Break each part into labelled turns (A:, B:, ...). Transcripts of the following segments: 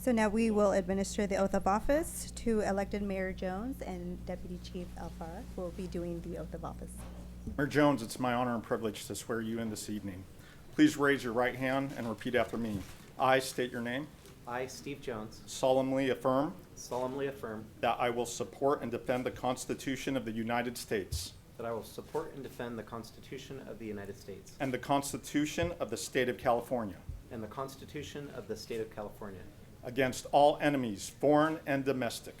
A: So now we will administer the oath of office to elected Mayor Jones and Deputy Chief Alfaro will be doing the oath of office.
B: Mayor Jones, it's my honor and privilege to swear you in this evening. Please raise your right hand and repeat after me. I state your name,
C: I, Steve Jones,
B: solemnly affirm
C: solemnly affirm
B: that I will support and defend the Constitution of the United States
C: that I will support and defend the Constitution of the United States
B: and the Constitution of the State of California
C: and the Constitution of the State of California
B: against all enemies, foreign and domestic,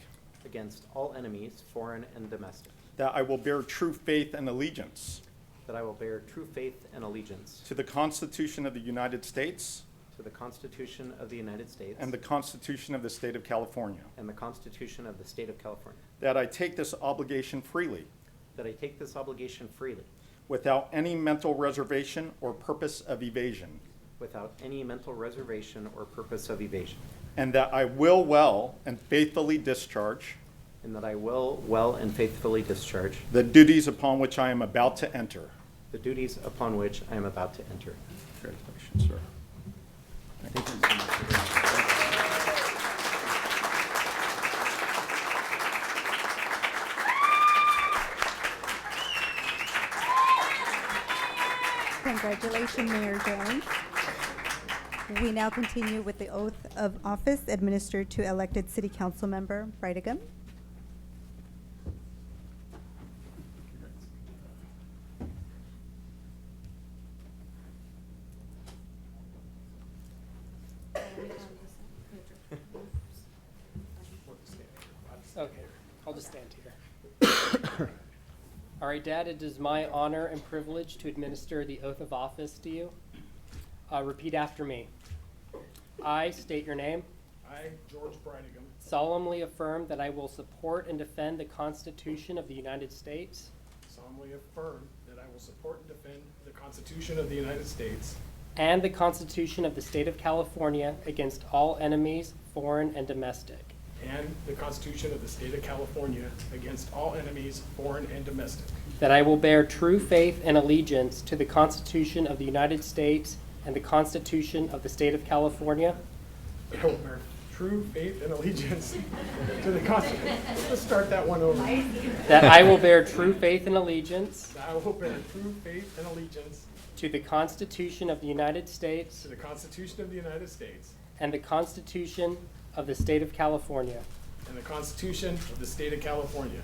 C: against all enemies, foreign and domestic,
B: that I will bear true faith and allegiance
C: that I will bear true faith and allegiance
B: to the Constitution of the United States
C: to the Constitution of the United States
B: and the Constitution of the State of California,
C: and the Constitution of the State of California,
B: that I take this obligation freely
C: that I take this obligation freely
B: without any mental reservation or purpose of evasion,
C: without any mental reservation or purpose of evasion,
B: and that I will well and faithfully discharge
C: and that I will well and faithfully discharge
B: the duties upon which I am about to enter.
C: the duties upon which I am about to enter.
B: Congratulations, sir.
A: Congratulations, Mayor Jones. We now continue with the oath of office administered to elected City Council Member Brightigam.
D: Okay, I'll just stand here. All right, Dad, it is my honor and privilege to administer the oath of office to you. Uh, repeat after me. I state your name,
E: I, George Brightigam,
D: solemnly affirm that I will support and defend the Constitution of the United States
E: solemnly affirm that I will support and defend the Constitution of the United States
D: and the Constitution of the State of California against all enemies, foreign and domestic,
E: and the Constitution of the State of California against all enemies, foreign and domestic,
D: that I will bear true faith and allegiance to the Constitution of the United States and the Constitution of the State of California
E: that I will bear true faith and allegiance to the Constitution. Let's start that one over. That
D: That I will bear true faith and allegiance
E: I will bear true faith and allegiance
D: to the Constitution of the United States
E: to the Constitution of the United States
D: and the Constitution of the State of California.
E: and the Constitution of the State of California,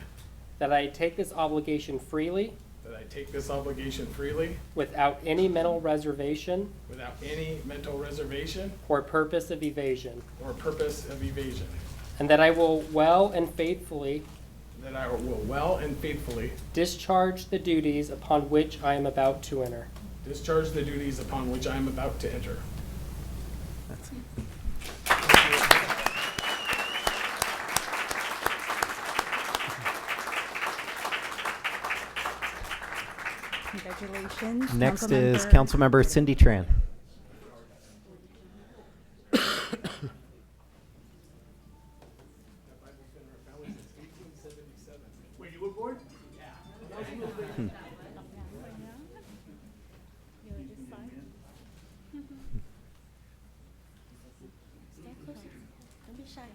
D: That I take this obligation freely,
E: that I take this obligation freely
D: without any mental reservation
E: without any mental reservation
D: or purpose of evasion.
E: or purpose of evasion,
D: And that I will well and faithfully
E: That I will well and faithfully
D: discharge the duties upon which I am about to enter.
E: discharge the duties upon which I am about to enter.
A: Congratulations.
F: Next is
A: Councilmember-
F: Councilmember Cindy Tran.
G: Stand closer. Don't be shy.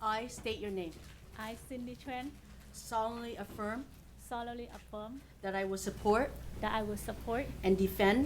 G: I state your name.
H: I, Cindy Tran,
G: solemnly affirm
H: solemnly affirm
G: that I will support
H: that I will support
G: and defend